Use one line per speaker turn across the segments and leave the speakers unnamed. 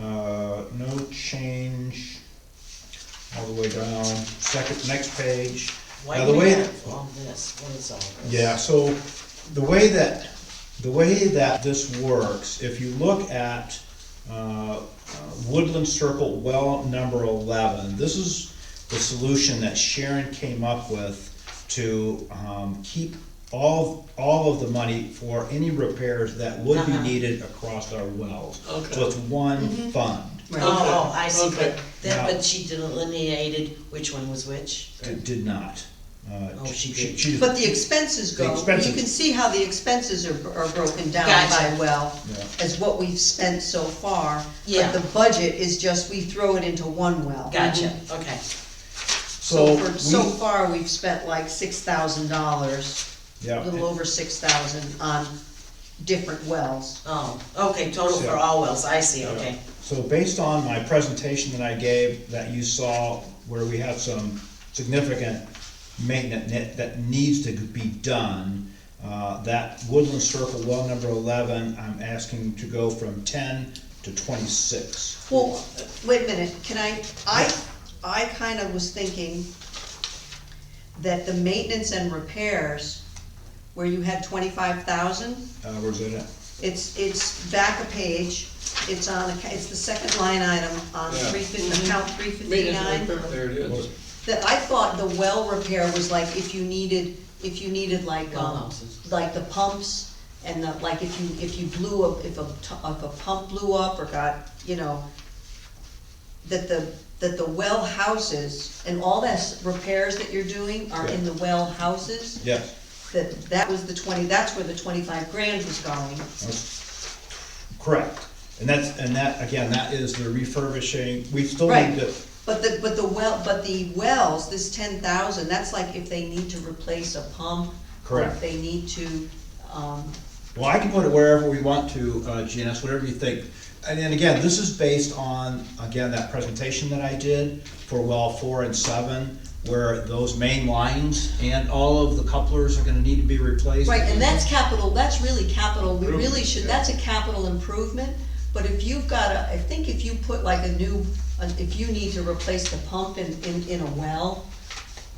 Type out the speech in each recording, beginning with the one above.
Uh, change all the way down, second, next page.
Why
Now,
do
the
we
way,
have all this? What is all this?
yeah, so the way that, the way that this works, if you look at uh, uh, Woodland Circle well number eleven, this is the solution that Sharon came up with to um, keep all, all of the money for any repairs that would be
Uh-huh.
needed across our wells.
Okay.
So it's one fund.
Oh, oh, I see, but
Okay.
then,
Now-
but she delineated which one was which?
Did, did not. Uh,
Oh, she did.
But the expenses
The
go, you
expenses.
can see how the expenses are, are broken down
Gotcha.
by well,
Yeah.
as what we've spent so far.
Yeah.
But the budget is just, we throw it into one well.
Gotcha, okay,
So
So,
for, so
we,
far, we've spent like six thousand dollars, a little
yeah,
over six thousand on different wells.
oh, okay, total for
So-
all wells, I see, okay.
so based on my presentation that I gave, that you saw, where we have some significant maintenance that- that needs to be done, uh, that Woodland Circle well number eleven, I'm asking to go from ten to twenty-six.
Well, wait a minute, can I, I, I kind of was thinking that the maintenance and repairs, where you had twenty-five thousand,
Uh, where's it at?
It's, it's back a page, it's on, acc- it's the second line item on
Yeah.
three fifty, account three
Mm-hmm. Maintenance and
fifty-nine.
repair, there it is.
That I thought the well repair was like if you needed, if you needed like,
Well
um,
houses.
like the pumps and the, like if you, if you blew up, if a, t- if a pump blew up or got, you know, that the, that the well houses and all that repairs that you're doing are in the well houses,
Yes,
that, that was the twenty, that's where the twenty-five grand was going.
Uh-huh. that's correct. And that's, and that, again, that is the refurbishing, we still
Right,
need to,
but the, but the well, but the wells, this ten thousand, that's like if they need to replace a pump. or
Correct.
If they need to, um,
Well, I can put it wherever we want to, uh, Janice, whatever you think. And then again, this is based on, again, that presentation that I did for well four and seven, where those main lines and all of the couplers are gonna need to be replaced.
right, and that's capital, that's really capital, we really
Improvement,
should,
yeah.
that's a capital improvement. But if you've got a, I think if you put like a new, uh, if you need to replace the pump in, in, in a well,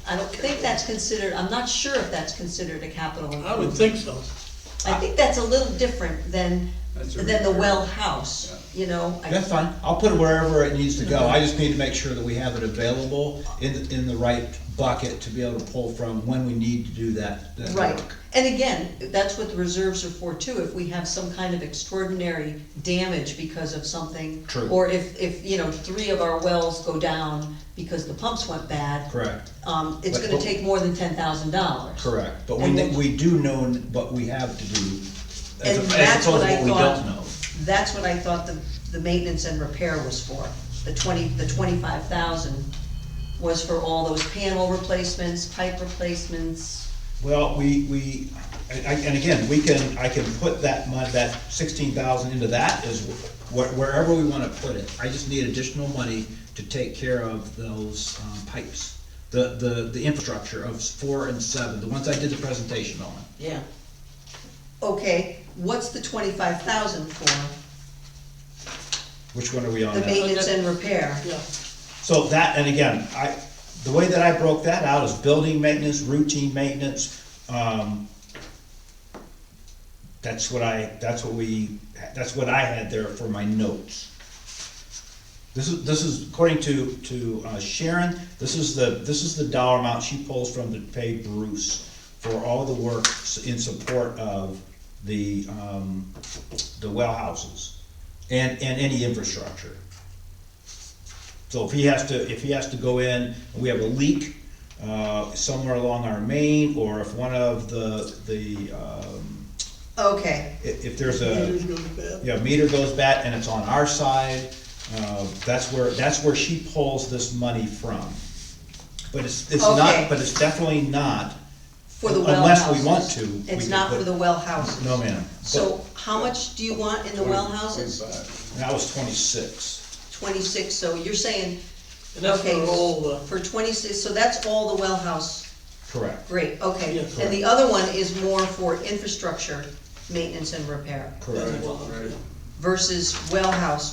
I don't think that's considered, I'm not sure if that's considered a capital
I would
improvement.
think so.
I think that's a little different than,
That's a
than the
repair.
well house, you know? I-
That's fine, I'll put it wherever it needs to go.
Mm-hmm.
I just need to make sure that we have it available in, in the right bucket to be able to pull from when we need to do that, that
Right,
work.
and again, that's what the reserves are for too, if we have some kind of extraordinary damage because of something.
True.
Or if, if, you know, three of our wells go down because the pumps went bad.
Correct,
Um, it's
But-
gonna
but-
take more than ten thousand dollars.
correct. But we,
And
ne-
the-
we do know what we have to do as
And
opposed
that's
to
what I
what we
thought-
don't know.
That's what I thought the, the maintenance and repair was for, the twenty, the twenty-five thousand was for all those panel replacements, pipe replacements.
Well, we, we, I- I- and again, we can, I can put that mon, that sixteen thousand into that is wh- wherever we wanna put it. I just need additional money to take care of those um, pipes, the, the, the infrastructure of four and seven, the ones I did the presentation on.
Yeah,
Okay, what's the twenty-five thousand for,
Which one are we on
the
now?
maintenance and repair?
Yeah.
So that, and again, I, the way that I broke that out is building maintenance, routine maintenance, um, that's what I, that's what we, that's what I had there for my notes. This is, this is according to, to uh, Sharon, this is the, this is the dollar amount she pulls from to pay Bruce for all the work s- in support of the, um, the well houses and, and any infrastructure. So if he has to, if he has to go in, we have a leak, uh, somewhere along our main, or if one of the, the, um,
Okay,
i- if there's a,
Meters go to bed.
yeah, meter goes bad and it's on our side, uh, that's where, that's where she pulls this money from. But it's, it's
Okay.
not, but it's definitely not,
For the well
Unless we want
houses.
to, we
It's
could
not
put-
for the well houses.
no ma'am.
So how much do you want in the well houses?
Twenty-five.
But- And I was twenty-six,
Twenty-six, so you're saying,
And that's
okay,
for all the,
for twenty-six, so that's all the well house,
correct,
great, okay.
Yeah,
And the
correct.
other one is more for infrastructure, maintenance and repair
that's
correct.
all, yeah.
versus well house